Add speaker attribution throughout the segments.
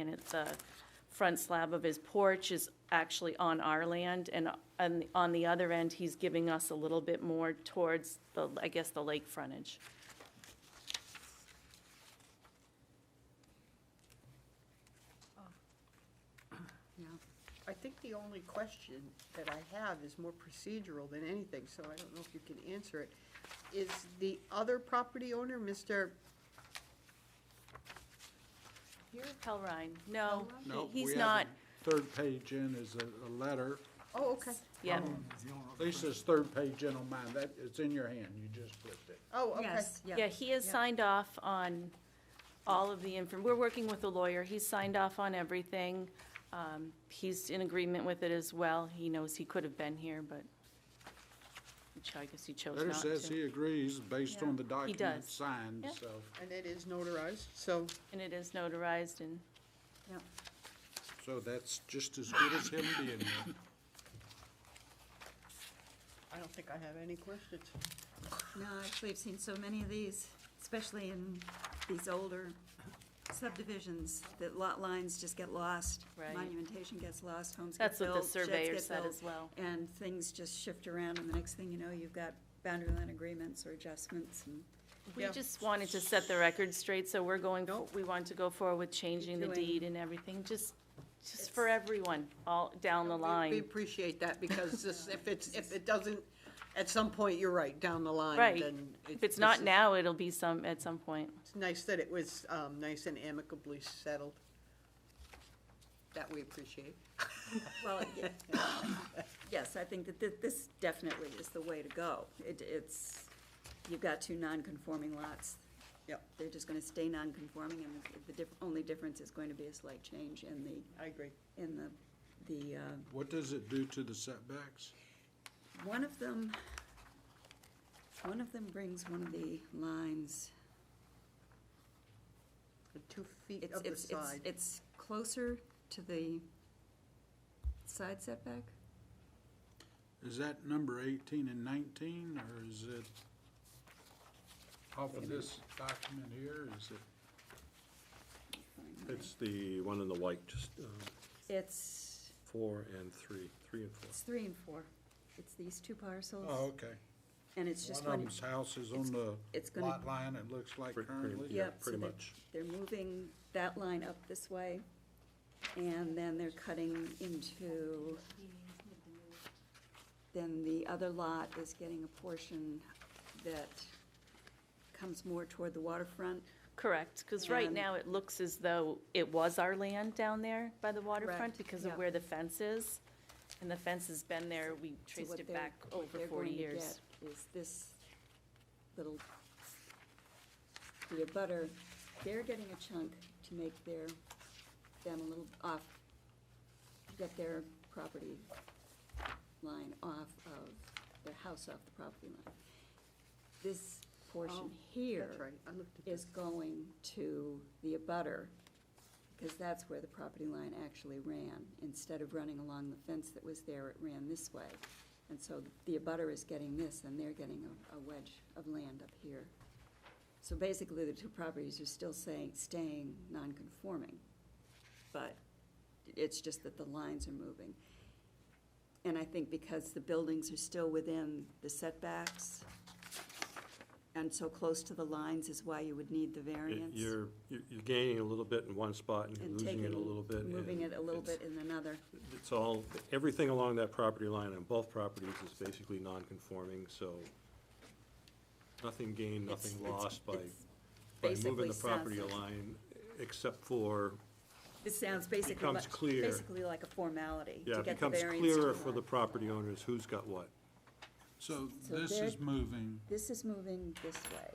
Speaker 1: and it's a front slab of his porch is actually on our land, and, and on the other end, he's giving us a little bit more towards the, I guess, the lake frontage.
Speaker 2: I think the only question that I have is more procedural than anything, so I don't know if you can answer it. Is the other property owner, Mr.,
Speaker 1: Hell Rhine, no,
Speaker 3: No,
Speaker 1: he's
Speaker 3: we Oh. have
Speaker 1: not,
Speaker 3: a- Third page in is a, a letter.
Speaker 2: oh, okay,
Speaker 1: yeah,
Speaker 3: Lisa's third page in on mine, that, it's in your hand, you just flipped it.
Speaker 2: oh, okay.
Speaker 4: Yes, yeah.
Speaker 1: yeah, he has signed off on all of the inform, we're working with a lawyer, he's signed off on everything. Um, he's in agreement with it as well, he knows he could have been here, but which I guess he chose
Speaker 3: Letter
Speaker 1: not to.
Speaker 3: says he agrees based on the document
Speaker 1: does.
Speaker 3: signed,
Speaker 1: Yeah.
Speaker 3: so.
Speaker 2: And it is notarized, so,
Speaker 1: And it is notarized and.
Speaker 4: yeah.
Speaker 3: So that's just as good as him being here.
Speaker 2: I don't think I have any questions.
Speaker 4: No, actually, I've seen so many of these, especially in these older subdivisions, that lot lines just get lost.
Speaker 1: Right.
Speaker 4: Monumentation gets lost, homes get
Speaker 1: That's
Speaker 4: built.
Speaker 1: what the
Speaker 4: sheds
Speaker 1: surveyor
Speaker 4: get
Speaker 1: said
Speaker 4: built,
Speaker 1: as well.
Speaker 4: And things just shift around, and the next thing you know, you've got boundary line agreements or adjustments, and
Speaker 1: We
Speaker 2: Yeah.
Speaker 1: just wanted to set the record straight, so we're going,
Speaker 2: Nope.
Speaker 1: we want to go forward with changing the
Speaker 4: Doing-
Speaker 1: deed and everything, just, just for everyone, all down the
Speaker 2: We
Speaker 1: line.
Speaker 2: appreciate that, because this- if it's, if it doesn't, at some point, you're right, down the line,
Speaker 1: Right.
Speaker 2: then. it-
Speaker 1: If it's
Speaker 2: this
Speaker 1: not
Speaker 2: is-
Speaker 1: now, it'll be some, at some point.
Speaker 2: It's nice that it was um, nice and amicably settled. That we appreciate.
Speaker 4: Well, yeah. yes, I think that thi- this definitely is the way to go. It, it's, you've got two non-conforming lots.
Speaker 2: Yep.
Speaker 4: They're just gonna stay non-conforming, and the diff, only difference is going to be a slight change in the,
Speaker 2: I agree.
Speaker 4: in the, the, uh,
Speaker 3: What does it do to the setbacks?
Speaker 4: one of them, one of them brings one of the lines.
Speaker 2: The Two feet
Speaker 4: It's,
Speaker 2: of the
Speaker 4: it's, it's,
Speaker 2: side.
Speaker 4: it's closer to the side setback?
Speaker 3: Is that number eighteen and nineteen, or is it off of this document here, is it?
Speaker 5: It's the one in the white, just um,
Speaker 4: It's,
Speaker 5: four and three, three and four.
Speaker 4: it's three and four. It's these two parcels.
Speaker 3: Oh, okay.
Speaker 4: And it's just
Speaker 3: One of
Speaker 4: one,
Speaker 3: them's house is on
Speaker 4: it's
Speaker 3: the
Speaker 4: gonna-
Speaker 3: lot line, it looks like
Speaker 5: Pretty- pretty-
Speaker 3: currently.
Speaker 5: yeah,
Speaker 4: yep, so
Speaker 5: pretty
Speaker 4: they're,
Speaker 5: much.
Speaker 4: they're moving that line up this way, and then they're cutting into, then the other lot is getting a portion that comes more toward the waterfront.
Speaker 1: Correct, because right
Speaker 4: And-
Speaker 1: now, it looks as though it was our land down there by the waterfront
Speaker 4: Correct,
Speaker 1: because of
Speaker 4: yeah.
Speaker 1: where the fence is. And the fence has been there, we
Speaker 4: So
Speaker 1: traced
Speaker 4: what
Speaker 1: it
Speaker 4: they're-
Speaker 1: back
Speaker 4: what
Speaker 1: over
Speaker 4: they're
Speaker 1: forty
Speaker 4: going to
Speaker 1: years.
Speaker 4: get Is this little, the abutter, they're getting a chunk to make their, them a little off, get their property line off of, their house off the property line. This
Speaker 1: Oh,
Speaker 4: portion here
Speaker 2: That's right, I looked at
Speaker 4: is
Speaker 2: this.
Speaker 4: going to the abutter, because that's where the property line actually ran. Instead of running along the fence that was there, it ran this way. And so the abutter is getting this, and they're getting a- a wedge of land up here. So basically, the two properties are still saying, staying non-conforming, but it's just that the lines are moving. And I think because the buildings are still within the setbacks and so close to the lines is why you would need the
Speaker 5: It-
Speaker 4: variance.
Speaker 5: You're, you're you're gaining a little bit in one spot and you're
Speaker 4: and
Speaker 5: losing it
Speaker 4: taking-
Speaker 5: a little bit. and
Speaker 4: Moving it a little
Speaker 5: it's-
Speaker 4: bit in another.
Speaker 5: It's all, everything along that property line on both properties is basically non-conforming, so nothing gained,
Speaker 4: It's-
Speaker 5: nothing
Speaker 4: it's-
Speaker 5: lost by,
Speaker 4: it's
Speaker 5: by
Speaker 4: basically
Speaker 5: moving the
Speaker 4: sounds
Speaker 5: property
Speaker 4: like-
Speaker 5: line, except for,
Speaker 4: This sounds basically,
Speaker 5: becomes
Speaker 4: like-
Speaker 5: clear.
Speaker 4: basically like a formality
Speaker 5: yeah,
Speaker 4: to
Speaker 5: it
Speaker 4: get the
Speaker 5: becomes
Speaker 4: variance.
Speaker 5: clearer
Speaker 4: to
Speaker 5: for the
Speaker 4: that.
Speaker 5: property owners who's got what.
Speaker 3: So
Speaker 4: So
Speaker 3: this
Speaker 4: they're-
Speaker 3: is moving,
Speaker 4: This is moving this way.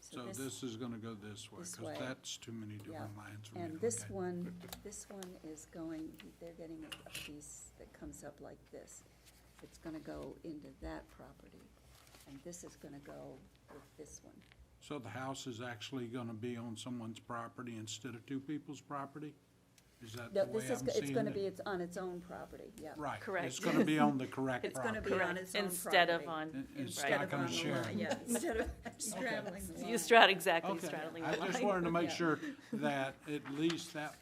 Speaker 3: so this is gonna go this way,
Speaker 4: this
Speaker 3: because
Speaker 4: way.
Speaker 3: that's too many
Speaker 4: Yeah,
Speaker 3: different lines for me to
Speaker 4: and
Speaker 3: look
Speaker 4: this
Speaker 3: at.
Speaker 4: one, this one is going, they're getting a- a piece that comes up like this. It's gonna go into that property, and this is gonna go with this one.
Speaker 3: So the house is actually gonna be on someone's property instead of two people's property? Is that the
Speaker 4: No,
Speaker 3: way
Speaker 4: this is,
Speaker 3: I'm
Speaker 4: go- it's
Speaker 3: seeing
Speaker 4: gonna be,
Speaker 3: it?
Speaker 4: it's on its own property, yeah.
Speaker 3: Right, it's
Speaker 1: Correct.
Speaker 3: gonna be on the correct
Speaker 4: It's gonna
Speaker 3: property.
Speaker 4: be on its own property.
Speaker 1: Instead of on,
Speaker 3: It- It's
Speaker 1: Right.
Speaker 3: not
Speaker 4: Instead of on
Speaker 3: gonna
Speaker 4: the
Speaker 3: share.
Speaker 4: line, Yeah, instead of straddling the line.
Speaker 1: you strat, exactly,
Speaker 3: Okay,
Speaker 1: straddling. the
Speaker 3: I just
Speaker 1: line.
Speaker 3: wanted to make
Speaker 4: Yeah.
Speaker 3: sure that at least that